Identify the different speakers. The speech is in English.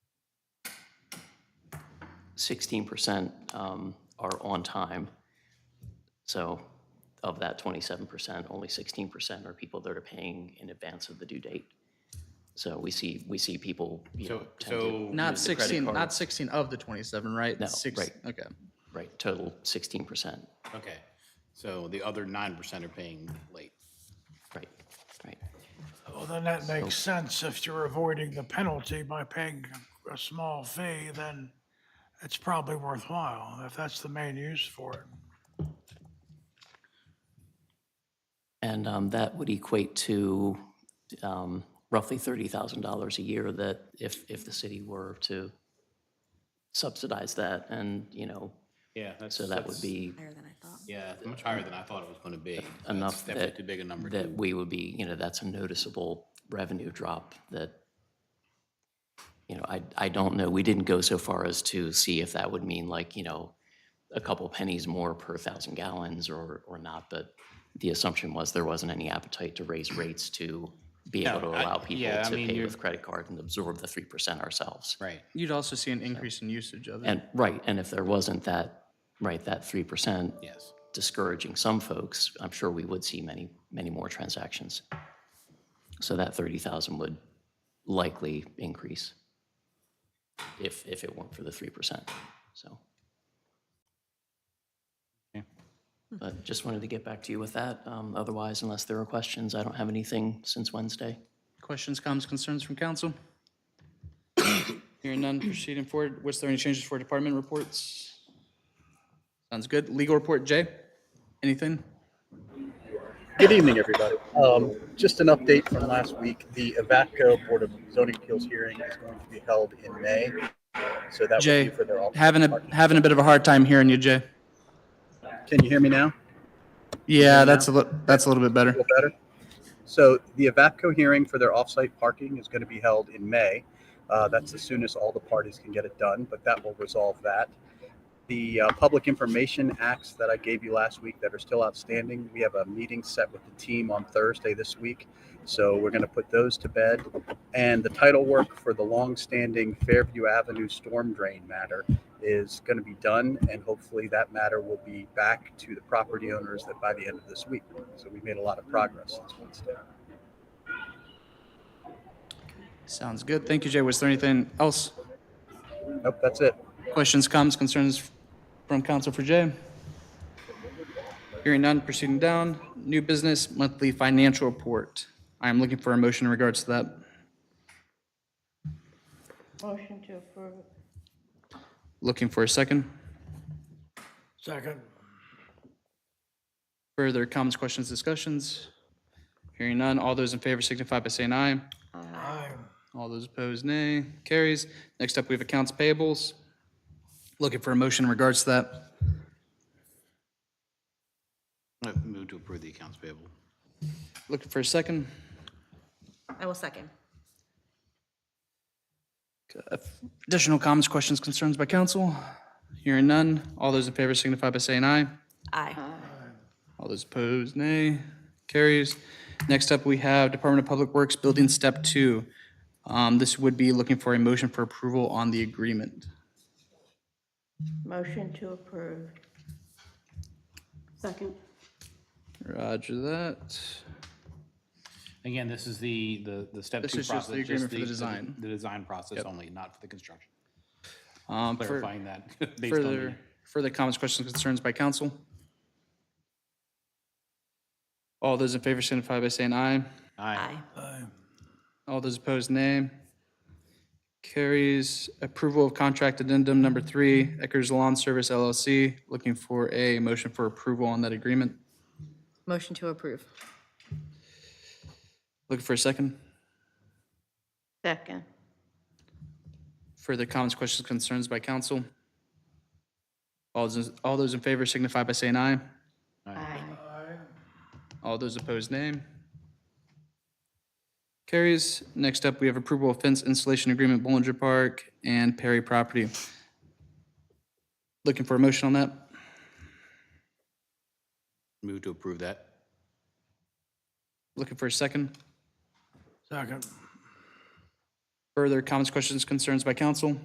Speaker 1: 16% um, are on time. So of that 27%, only 16% are people that are paying in advance of the due date. So we see, we see people, you know,
Speaker 2: So,
Speaker 1: tend to-
Speaker 2: so
Speaker 3: Not
Speaker 1: the credit
Speaker 3: 16,
Speaker 1: card.
Speaker 3: not 16 of the 27, right?
Speaker 1: No,
Speaker 3: Six-
Speaker 1: right.
Speaker 3: Okay.
Speaker 1: right, total 16%.
Speaker 2: okay, so the other nine percent are paying late.
Speaker 1: Right, right.
Speaker 4: Well, then that makes sense. If you're avoiding the penalty by paying a small fee, then it's probably worthwhile, if that's the main use for it.
Speaker 1: And um, that would equate to um, roughly $30,000 a year that if, if the city were to subsidize that and, you know,
Speaker 2: Yeah.
Speaker 1: so that would be
Speaker 5: Higher than I thought.
Speaker 2: Yeah, it's much higher than I thought it was gonna be.
Speaker 1: enough
Speaker 2: That's Definitely
Speaker 1: that-
Speaker 2: too big a number.
Speaker 1: that we would be, you know, that's a noticeable revenue drop that, you know, I, I don't know, we didn't go so far as to see if that would mean like, you know, a couple pennies more per thousand gallons or, or not, but the assumption was there wasn't any appetite to raise rates to be able to
Speaker 2: No, I-
Speaker 1: allow people
Speaker 2: yeah, I
Speaker 1: to
Speaker 2: mean,
Speaker 1: pay
Speaker 2: you're-
Speaker 1: with credit card and absorb the three percent ourselves.
Speaker 2: Right,
Speaker 3: You'd also see an increase in usage of it.
Speaker 1: And, right, and if there wasn't that, right, that three percent
Speaker 2: yes.
Speaker 1: discouraging some folks, I'm sure we would see many, many more transactions. So that 30,000 would likely increase if, if it weren't for the 3%, so. But just wanted to get back to you with that. Um, Otherwise, unless there are questions, I don't have anything since Wednesday.
Speaker 3: Questions, comments, concerns from council? Hearing none, proceeding forward. Was there any changes for department reports? Sounds good. Legal report, Jay? Anything?
Speaker 6: Good evening, everybody. Um, just an update from last week. The Evapco Board of Zoning Appeals hearing is going to be held in May. So that
Speaker 3: Jay,
Speaker 6: would be for their. all-
Speaker 3: Having a, having a bit of a hard time hearing you, Jay.
Speaker 6: Can you hear me now?
Speaker 3: Yeah, that's a little, that's a little bit
Speaker 6: A
Speaker 3: better.
Speaker 6: little better? So the Evapco hearing for their off-site parking is going to be held in May. Uh, that's as soon as all the parties can get it done, but that will resolve that. The uh, public information acts that I gave you last week that are still outstanding, we have a meeting set with the team on Thursday this week. So we're going to put those to bed. And the title work for the long-standing Fairview Avenue storm drain matter is going to be done. And hopefully that matter will be back to the property owners that by the end of this week. So we made a lot of progress this Wednesday.
Speaker 3: Sounds good. Thank you, Jay. Was there anything else?
Speaker 6: Nope, that's it.
Speaker 3: Questions, comments, concerns from council for Jay? Hearing none, proceeding down. New business monthly financial report. I am looking for a motion in regards to that.
Speaker 7: Motion to approve.
Speaker 3: Looking for a second.
Speaker 4: Second,
Speaker 3: Further comments, questions, discussions? Hearing none, all those in favor signify by saying aye.
Speaker 4: aye.
Speaker 3: All those opposed, nay. Carries. Next up, we have accounts payables. Looking for a motion in regards to that.
Speaker 2: I Move to approve the accounts payable.
Speaker 3: Looking for a second.
Speaker 5: I will second.
Speaker 3: Additional comments, questions, concerns by council? Hearing none, all those in favor signify by saying aye.
Speaker 7: Uh,
Speaker 5: Aye.
Speaker 3: All those opposed, nay. Carries. Next up, we have Department of Public Works Building Step Two. Um, This would be looking for a motion for approval on the agreement.
Speaker 7: Motion to approve. Second.
Speaker 3: Roger that.
Speaker 2: Again, this is the, the, the step two process.
Speaker 3: This is just the agreement for the design.
Speaker 2: The design process only, not for the construction.
Speaker 3: Um, for-
Speaker 2: Clarifying that based on the.
Speaker 3: Further, further comments, questions, concerns by council? All those in favor signify by saying aye.
Speaker 2: Aye.
Speaker 3: All those opposed, nay. Carries approval of contract addendum number three, Eckers Lawn Service LLC, looking for a motion for approval on that agreement.
Speaker 5: Motion to approve.
Speaker 3: Looking for a second.
Speaker 7: Second.
Speaker 3: Further comments, questions, concerns by council? All those, all those in favor signify by saying aye.
Speaker 7: Aye.
Speaker 3: All those opposed, nay. Carries. Next up, we have approval of fence installation agreement Bollinger Park and Perry property. Looking for a motion on that.
Speaker 2: Move to approve that.
Speaker 3: Looking for a second.
Speaker 4: Second.
Speaker 3: Further comments, questions, concerns by council?